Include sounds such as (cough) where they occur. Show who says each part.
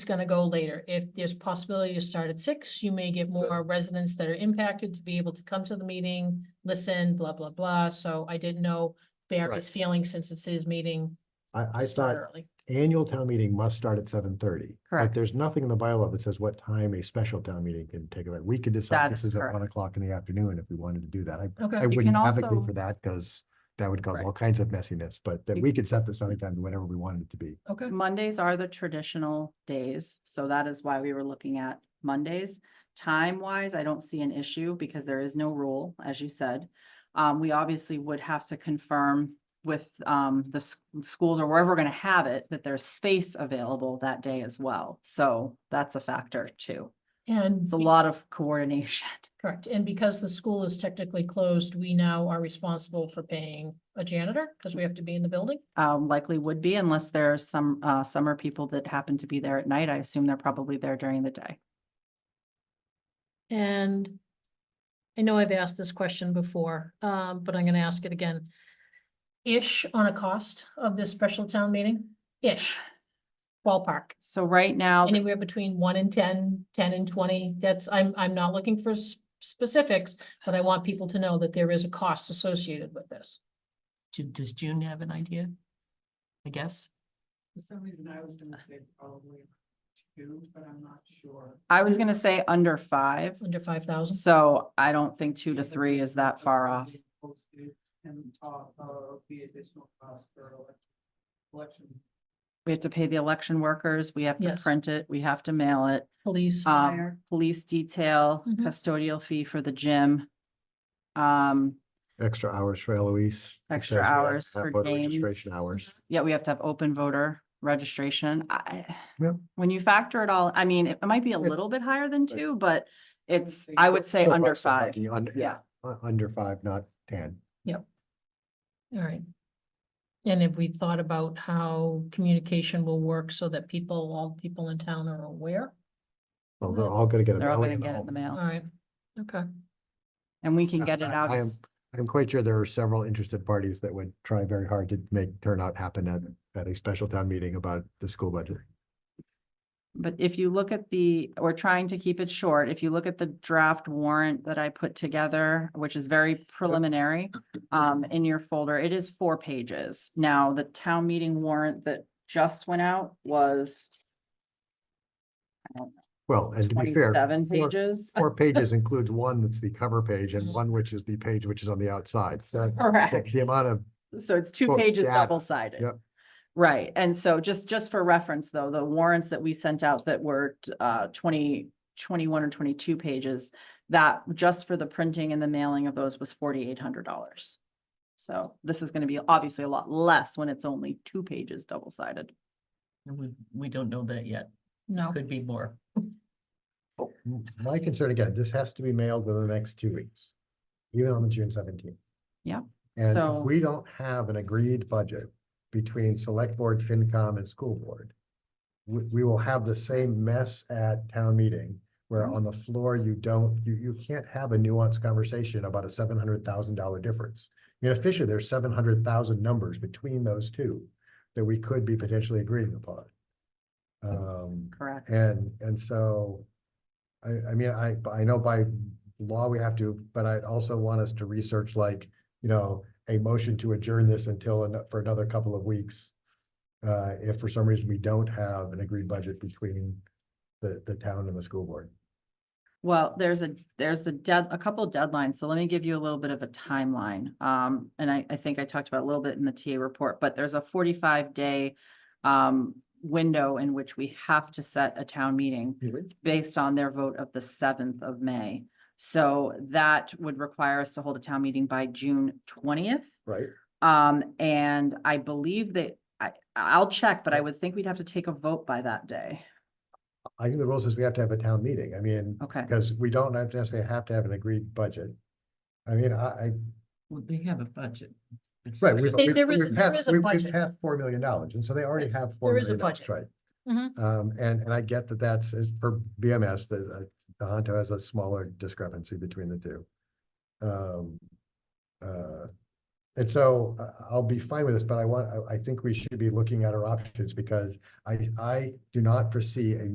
Speaker 1: it's gonna go later. If there's possibility to start at six, you may get more residents that are impacted to be able to come to the meeting, listen, blah, blah, blah. So I didn't know Barry's feeling since it's his meeting.
Speaker 2: I, I
Speaker 1: to start
Speaker 2: thought
Speaker 1: early.
Speaker 2: annual town meeting must start at seven thirty. But
Speaker 3: Correct.
Speaker 2: there's nothing in the bylaw that says what time a special town meeting can take away. We could decide
Speaker 3: That
Speaker 2: this is
Speaker 3: is
Speaker 2: at one
Speaker 3: correct.
Speaker 2: o'clock in the afternoon if we wanted to do that. I, I
Speaker 1: Okay,
Speaker 3: can
Speaker 2: wouldn't advocate
Speaker 3: also-
Speaker 2: for that because that would cause
Speaker 3: Right.
Speaker 2: all kinds of messiness, but that
Speaker 3: You-
Speaker 2: we could set the starting time to whatever we wanted it to be.
Speaker 1: okay.
Speaker 3: Mondays are the traditional days, so that is why we were looking at Mondays. Time wise, I don't see an issue because there is no rule, as you said. Um, we obviously would have to confirm with um the s- schools or wherever we're gonna have it, that there's space available that day as well. So that's a factor too.
Speaker 1: And.
Speaker 3: It's a
Speaker 1: be-
Speaker 3: lot of coordination. (laughs)
Speaker 1: Correct. And because the school is technically closed, we now are responsible for paying a janitor because we have to be in the building.
Speaker 3: Um, likely would be unless there's some uh summer people that happen to be there at night. I assume they're probably there during the day.
Speaker 1: And I know I've asked this question before, um, but I'm gonna ask it again. Ish on a cost of this special town meeting, ish. Ballpark,
Speaker 3: So right now.
Speaker 1: anywhere between one and 10, 10 and twenty, that's, I'm, I'm not looking for s- specifics, but I want people to know that there is a cost associated with this.
Speaker 4: Ju- Does June have an idea? I guess.
Speaker 5: For some reason, I was gonna say probably two, but I'm not sure.
Speaker 3: I was gonna say under five,
Speaker 1: Under five thousand,
Speaker 3: so I don't think two to three is that far off.
Speaker 5: Posted And top of the additional cost for elec- election.
Speaker 3: We have to pay the election workers, we have to
Speaker 1: Yes.
Speaker 3: print it, we have to mail it.
Speaker 1: police,
Speaker 3: Um, police detail,
Speaker 1: Mhm.
Speaker 3: custodial fee for the gym. Um,
Speaker 2: Extra hours for Eloise. et
Speaker 3: Extra
Speaker 2: cetera,
Speaker 3: hours
Speaker 2: uh,
Speaker 3: for
Speaker 2: voter Registration
Speaker 3: James.
Speaker 2: hours.
Speaker 3: yeah, we have to have open voter registration. I,
Speaker 2: Yeah.
Speaker 3: when you factor it all, I mean, it might be a
Speaker 2: Yeah.
Speaker 3: little bit higher than
Speaker 2: Right.
Speaker 3: two, but
Speaker 5: would
Speaker 3: it's,
Speaker 5: say
Speaker 3: I
Speaker 5: so.
Speaker 3: would say
Speaker 2: So
Speaker 3: under
Speaker 2: far, so
Speaker 3: five.
Speaker 2: lucky, Under, yeah,
Speaker 3: Yeah.
Speaker 2: u- under five, not ten.
Speaker 1: All right. And have we thought about how communication will work so that people, all the people in town are aware?
Speaker 2: Well, they're all gonna get. a
Speaker 3: Mm-hmm. They're all
Speaker 2: mail
Speaker 3: gonna get it in the
Speaker 1: All
Speaker 3: mail
Speaker 1: right, okay,
Speaker 3: and we
Speaker 2: (laughs)
Speaker 3: can
Speaker 2: I-
Speaker 3: get it
Speaker 2: I-
Speaker 3: out
Speaker 2: I am-
Speaker 3: as
Speaker 2: I'm quite sure there are several interested parties that would try very hard to make turnout happen at, at a special town meeting about the school budget.
Speaker 3: But if you look at the, we're trying to keep it short. If you look at the draft warrant that I put together, which is very preliminary, um, in your folder, it is four pages. Now, the town meeting warrant that just went out was
Speaker 2: Well, and to be fair.
Speaker 3: twenty-seven
Speaker 2: four-
Speaker 3: pages.
Speaker 2: Four pages includes one that's the cover page and
Speaker 1: Mhm.
Speaker 2: one which is the page which is on the outside. So the-
Speaker 3: (laughs) Correct.
Speaker 2: the amount of,
Speaker 3: So it's two
Speaker 2: Well,
Speaker 3: pages
Speaker 2: yeah,
Speaker 3: double sided.
Speaker 2: yep.
Speaker 3: Right, and so just, just for reference, though, the warrants that we sent out that were uh 20 21 or twenty-two pages. That just for the printing and the mailing of those was forty-eight hundred dollars. So this is gonna be obviously a lot less when it's only two pages double sided.
Speaker 4: And We, we don't know that yet.
Speaker 1: no,
Speaker 4: Could be more.
Speaker 2: my concern again, this has to be mailed within the next two weeks, even on the June seventeenth.
Speaker 3: Yeah,
Speaker 2: And
Speaker 3: so-
Speaker 2: if we don't have an agreed budget between select board, FinCom and school board, we, we will have the same mess at town meeting where
Speaker 3: Mhm.
Speaker 2: on the floor you don't, you, you can't have a nuanced conversation about a seven hundred thousand dollar difference. You know, officially, there's seven hundred thousand numbers between those two that we could be potentially agreeing upon.
Speaker 3: Mm-hmm.
Speaker 2: Um,
Speaker 3: Correct.
Speaker 2: and, and so, I, I mean, I, I know by law we have to, but I'd also want us to research like, you know, a motion to adjourn this until, ano- for another couple of weeks. Uh, if for some reason we don't have an agreed budget between the, the town and the school board.
Speaker 3: Well, there's a, there's a dead, a couple deadlines, so let me give you a little bit of a timeline. Um, and I, I think I talked about a little bit in the TA report, but there's a forty-five day um, window in which we have to set a town meeting based on their vote of the seventh of May. So that would require us to hold a town meeting by June twentieth.
Speaker 2: Right.
Speaker 3: Um, and I believe that, I, I'll check, but I would think we'd have to take a vote by that day.
Speaker 2: I think the rule says we have to have a town meeting. I mean,
Speaker 3: Okay,
Speaker 2: because we don't have to necessarily have to have an agreed budget. I mean, I, I,
Speaker 4: Well, they have a budget. It's
Speaker 2: right,
Speaker 4: not
Speaker 2: we've,
Speaker 4: just-
Speaker 1: They-
Speaker 2: we've,
Speaker 1: there is-
Speaker 2: we've
Speaker 1: there is
Speaker 2: passed,
Speaker 1: a
Speaker 2: we've- we've
Speaker 1: budget.
Speaker 2: passed four million dollars, and so they already
Speaker 1: Yes,
Speaker 2: have four
Speaker 1: there is a
Speaker 2: million dollars,
Speaker 1: budget.
Speaker 2: right?
Speaker 1: Mhm.
Speaker 2: Um, and, and I get that that's, is for BMS, the, the Honto uh, has a smaller discrepancy between the two. Um, uh, and so I, I'll be fine with this, but I want, I, I think we should be looking at our options because I, I do not foresee a